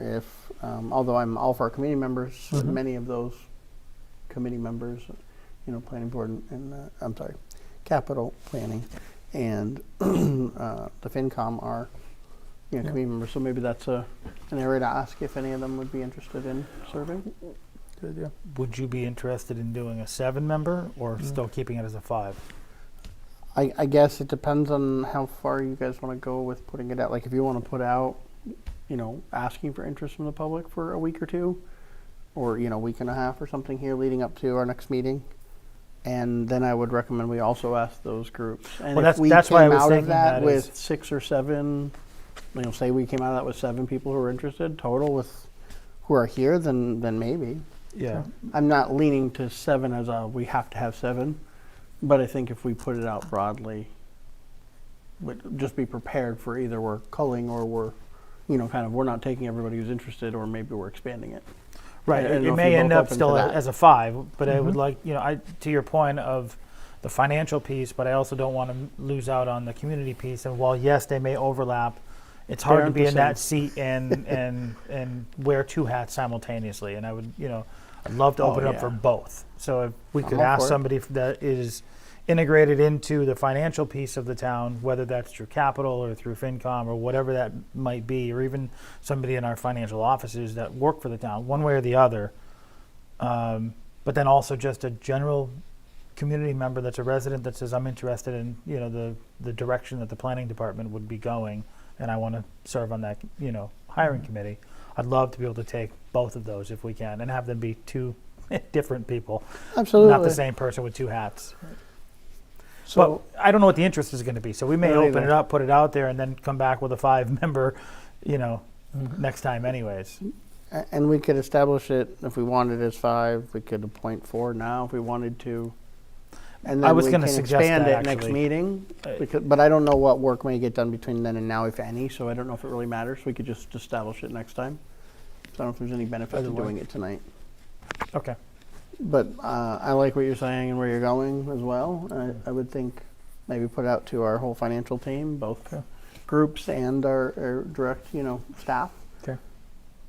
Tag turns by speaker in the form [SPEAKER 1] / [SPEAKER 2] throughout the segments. [SPEAKER 1] if, um, although I'm all for our committee members, many of those committee members, you know, planning board and- and, uh, I'm sorry, capital planning and uh, the FinCom are, you know,
[SPEAKER 2] Yeah.
[SPEAKER 1] committee members, so maybe that's a, an area to ask if any of them would be interested in serving.
[SPEAKER 2] Good idea.
[SPEAKER 3] Would you be interested in doing a seven member or
[SPEAKER 2] Mm.
[SPEAKER 3] still keeping it as a five?
[SPEAKER 1] I, I guess it depends on how far you guys want to go with putting it out. Like, if you want to put out, you know, asking for interest from the public for a week or two, or, you know, week and a half or something here leading up to our next meeting. And then I would recommend we also ask those groups. And
[SPEAKER 3] Well,
[SPEAKER 1] if
[SPEAKER 3] that's-
[SPEAKER 1] we
[SPEAKER 3] that's
[SPEAKER 1] came
[SPEAKER 3] why I was
[SPEAKER 1] out of
[SPEAKER 3] thinking
[SPEAKER 1] that,
[SPEAKER 3] that is-
[SPEAKER 1] with six or seven, you know, say we came out of that with seven people who are interested total with who are here, then then maybe.
[SPEAKER 3] Yeah.
[SPEAKER 1] I'm not leaning to seven as a we have to have seven, but I think if we put it out broadly, would just be prepared for either we're culling or we're, you know, kind of we're not taking everybody who's interested or maybe we're expanding it.
[SPEAKER 3] Right.
[SPEAKER 1] I don't
[SPEAKER 3] It,
[SPEAKER 1] know
[SPEAKER 3] it
[SPEAKER 1] if
[SPEAKER 3] may
[SPEAKER 1] you're
[SPEAKER 3] end
[SPEAKER 1] both
[SPEAKER 3] up
[SPEAKER 1] open to
[SPEAKER 3] still a-
[SPEAKER 1] that. Mm-hmm.
[SPEAKER 3] as a five, but I would
[SPEAKER 2] Mhm.
[SPEAKER 3] like, you know, I to your point of the financial piece, but I also don't want to lose out on the community piece. And while yes, they may overlap, it's
[SPEAKER 1] They
[SPEAKER 3] hard to
[SPEAKER 1] aren't
[SPEAKER 3] be
[SPEAKER 1] the
[SPEAKER 3] in that seat and and and wear two hats simultaneously. And I would, you know, I'd love to
[SPEAKER 1] Oh,
[SPEAKER 3] open it up for
[SPEAKER 1] yeah.
[SPEAKER 3] both. So if we
[SPEAKER 1] I'm
[SPEAKER 3] could
[SPEAKER 1] all
[SPEAKER 3] ask
[SPEAKER 1] for it.
[SPEAKER 3] somebody f- that is integrated into the financial piece of the town, whether that's through capital or through FinCom or whatever that might be, or even somebody in our financial offices that work for the town, one way or the other. Um, but then also just a general community member that's a resident that says, I'm interested in, you know, the, the direction that the planning department would be going and I want to serve on that, you know, hiring
[SPEAKER 1] Mm-hmm.
[SPEAKER 3] committee. I'd love to be able to take both of those if we can and have them be two different people,
[SPEAKER 1] Absolutely.
[SPEAKER 3] not the same person with two hats.
[SPEAKER 1] So
[SPEAKER 3] but I don't know what the interest is going to be. So we may
[SPEAKER 1] I don't
[SPEAKER 3] open
[SPEAKER 1] either.
[SPEAKER 3] it up, put it out there, and then come back with a five member, you know,
[SPEAKER 2] Mhm.
[SPEAKER 4] Mm-hmm.
[SPEAKER 3] next time, anyways.
[SPEAKER 1] a- and we could establish it if we wanted as five, we could appoint four now if we wanted to. And then
[SPEAKER 3] I was
[SPEAKER 1] we
[SPEAKER 3] gonna
[SPEAKER 1] can
[SPEAKER 3] suggest
[SPEAKER 1] expand
[SPEAKER 3] that,
[SPEAKER 1] it next
[SPEAKER 3] actually.
[SPEAKER 1] meeting,
[SPEAKER 3] Uh,
[SPEAKER 1] because, but I don't know what work may get done between then and now, if any. So I don't know if it really matters. We could just establish it next time. So I don't know if there's any benefit
[SPEAKER 3] Either
[SPEAKER 1] to
[SPEAKER 3] way.
[SPEAKER 1] doing it tonight.
[SPEAKER 3] Okay.
[SPEAKER 1] But uh, I like what you're saying and where you're going as well. I, I would think maybe put out to our whole financial team, both
[SPEAKER 2] Okay.
[SPEAKER 1] groups and our, our direct, you know, staff.
[SPEAKER 2] Okay.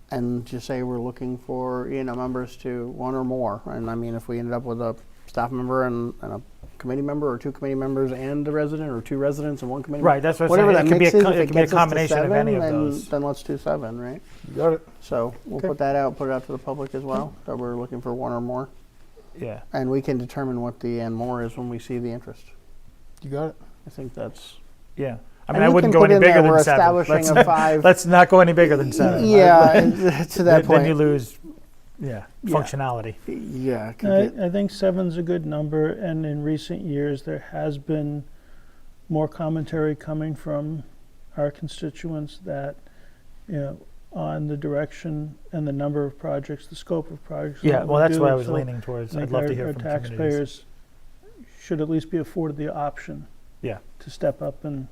[SPEAKER 1] And just say we're looking for you know members to one or more. And I mean, if we ended up with a staff member and, and a committee member, or two committee members and a resident, or two residents and one committee.
[SPEAKER 3] Right. That's what I'm
[SPEAKER 1] Whatever that
[SPEAKER 3] saying. it could be a,
[SPEAKER 1] mix is,
[SPEAKER 3] co-
[SPEAKER 1] if
[SPEAKER 3] it could be a
[SPEAKER 1] gets us to
[SPEAKER 3] combination of any
[SPEAKER 1] seven,
[SPEAKER 3] of
[SPEAKER 1] then,
[SPEAKER 3] those.
[SPEAKER 1] Then let's do seven, right?
[SPEAKER 2] You got it.
[SPEAKER 1] So we'll
[SPEAKER 2] Okay.
[SPEAKER 1] put that out. Put it out to the public as well that we're looking for one or more.
[SPEAKER 3] Yeah.
[SPEAKER 1] And we can determine what the and more is when we see the interest.
[SPEAKER 2] You got it.
[SPEAKER 1] I think that's.
[SPEAKER 3] Yeah. I
[SPEAKER 1] And
[SPEAKER 3] mean, I
[SPEAKER 1] you
[SPEAKER 3] wouldn't
[SPEAKER 1] can
[SPEAKER 3] go
[SPEAKER 1] put
[SPEAKER 3] any
[SPEAKER 1] in there
[SPEAKER 3] bigger
[SPEAKER 1] we're
[SPEAKER 3] than seven.
[SPEAKER 1] establishing
[SPEAKER 3] Let's,
[SPEAKER 1] a five.
[SPEAKER 3] let's not go any bigger than seven.
[SPEAKER 1] Yeah, to
[SPEAKER 3] Then-
[SPEAKER 1] that point.
[SPEAKER 3] Then you lose, yeah,
[SPEAKER 1] Yeah.
[SPEAKER 3] functionality.
[SPEAKER 1] yeah, it could
[SPEAKER 4] I,
[SPEAKER 1] get-
[SPEAKER 4] I think seven's a good number, and in recent years, there has been more commentary coming from our constituents that, you know, on the direction and the number of projects, the scope of projects. and
[SPEAKER 3] Yeah,
[SPEAKER 4] what
[SPEAKER 3] well,
[SPEAKER 4] we
[SPEAKER 3] that's
[SPEAKER 4] do.
[SPEAKER 3] what I was
[SPEAKER 4] So
[SPEAKER 3] leaning
[SPEAKER 4] I
[SPEAKER 3] towards.
[SPEAKER 4] think
[SPEAKER 3] I'd love
[SPEAKER 4] our-
[SPEAKER 3] to hear
[SPEAKER 4] our
[SPEAKER 3] from communities.
[SPEAKER 4] taxpayers should at least be afforded the option.
[SPEAKER 3] Yeah.
[SPEAKER 4] To step up and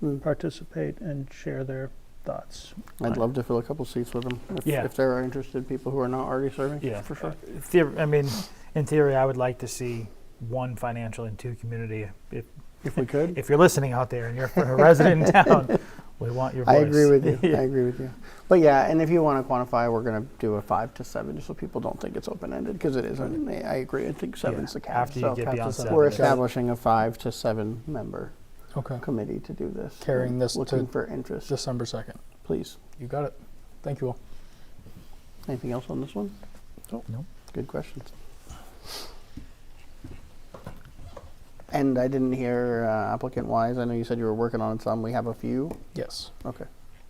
[SPEAKER 2] Hmm.
[SPEAKER 1] Mm.
[SPEAKER 4] participate and share their thoughts.
[SPEAKER 1] I'd love to fill a couple seats with them if,
[SPEAKER 3] Yeah.
[SPEAKER 1] if there are interested people who are not already serving.
[SPEAKER 3] Yeah,
[SPEAKER 1] for sure.
[SPEAKER 3] Uh, theor- I mean, in theory, I would like to see one financial and two community. If,
[SPEAKER 1] If we could,
[SPEAKER 3] if you're listening out there and you're a resident in town, we want your voice.
[SPEAKER 1] I agree with you. I agree with you. But yeah, and if you want to quantify, we're going to do a five to seven, just so people don't think it's open ended because it isn't. I I agree. I think seven's the cap.
[SPEAKER 3] Mm-hmm. after you
[SPEAKER 1] so
[SPEAKER 3] get
[SPEAKER 1] cap to
[SPEAKER 3] beyond
[SPEAKER 1] seven.
[SPEAKER 3] seven,
[SPEAKER 1] we're
[SPEAKER 3] it's-
[SPEAKER 1] establishing a five to seven member
[SPEAKER 2] Okay.
[SPEAKER 1] committee to do this.
[SPEAKER 2] Carrying
[SPEAKER 1] and
[SPEAKER 2] this to
[SPEAKER 1] looking for interest,
[SPEAKER 2] December 2nd.
[SPEAKER 1] please.
[SPEAKER 2] You got it. Thank you all.
[SPEAKER 1] Anything else on this one?
[SPEAKER 3] No.
[SPEAKER 1] Good questions. And I didn't hear uh, applicant wise, I know you said you were working on some, we have a few.
[SPEAKER 2] Yes.
[SPEAKER 1] Okay.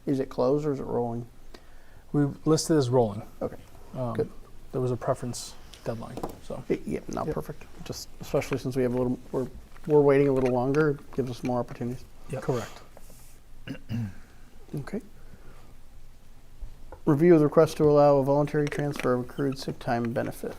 [SPEAKER 1] Is it closed or is it rolling?
[SPEAKER 2] We listed as rolling.
[SPEAKER 1] Okay.
[SPEAKER 2] Um,
[SPEAKER 1] Good.
[SPEAKER 2] There was a preference deadline. So
[SPEAKER 1] I- Yeah, not
[SPEAKER 2] Yep.
[SPEAKER 1] perfect, just especially since we have a little, we're, we're waiting a little longer, it gives us more opportunities.
[SPEAKER 3] Yep.
[SPEAKER 2] correct.
[SPEAKER 1] Okay. Review of the request to allow a voluntary transfer of accrued sick time benefit.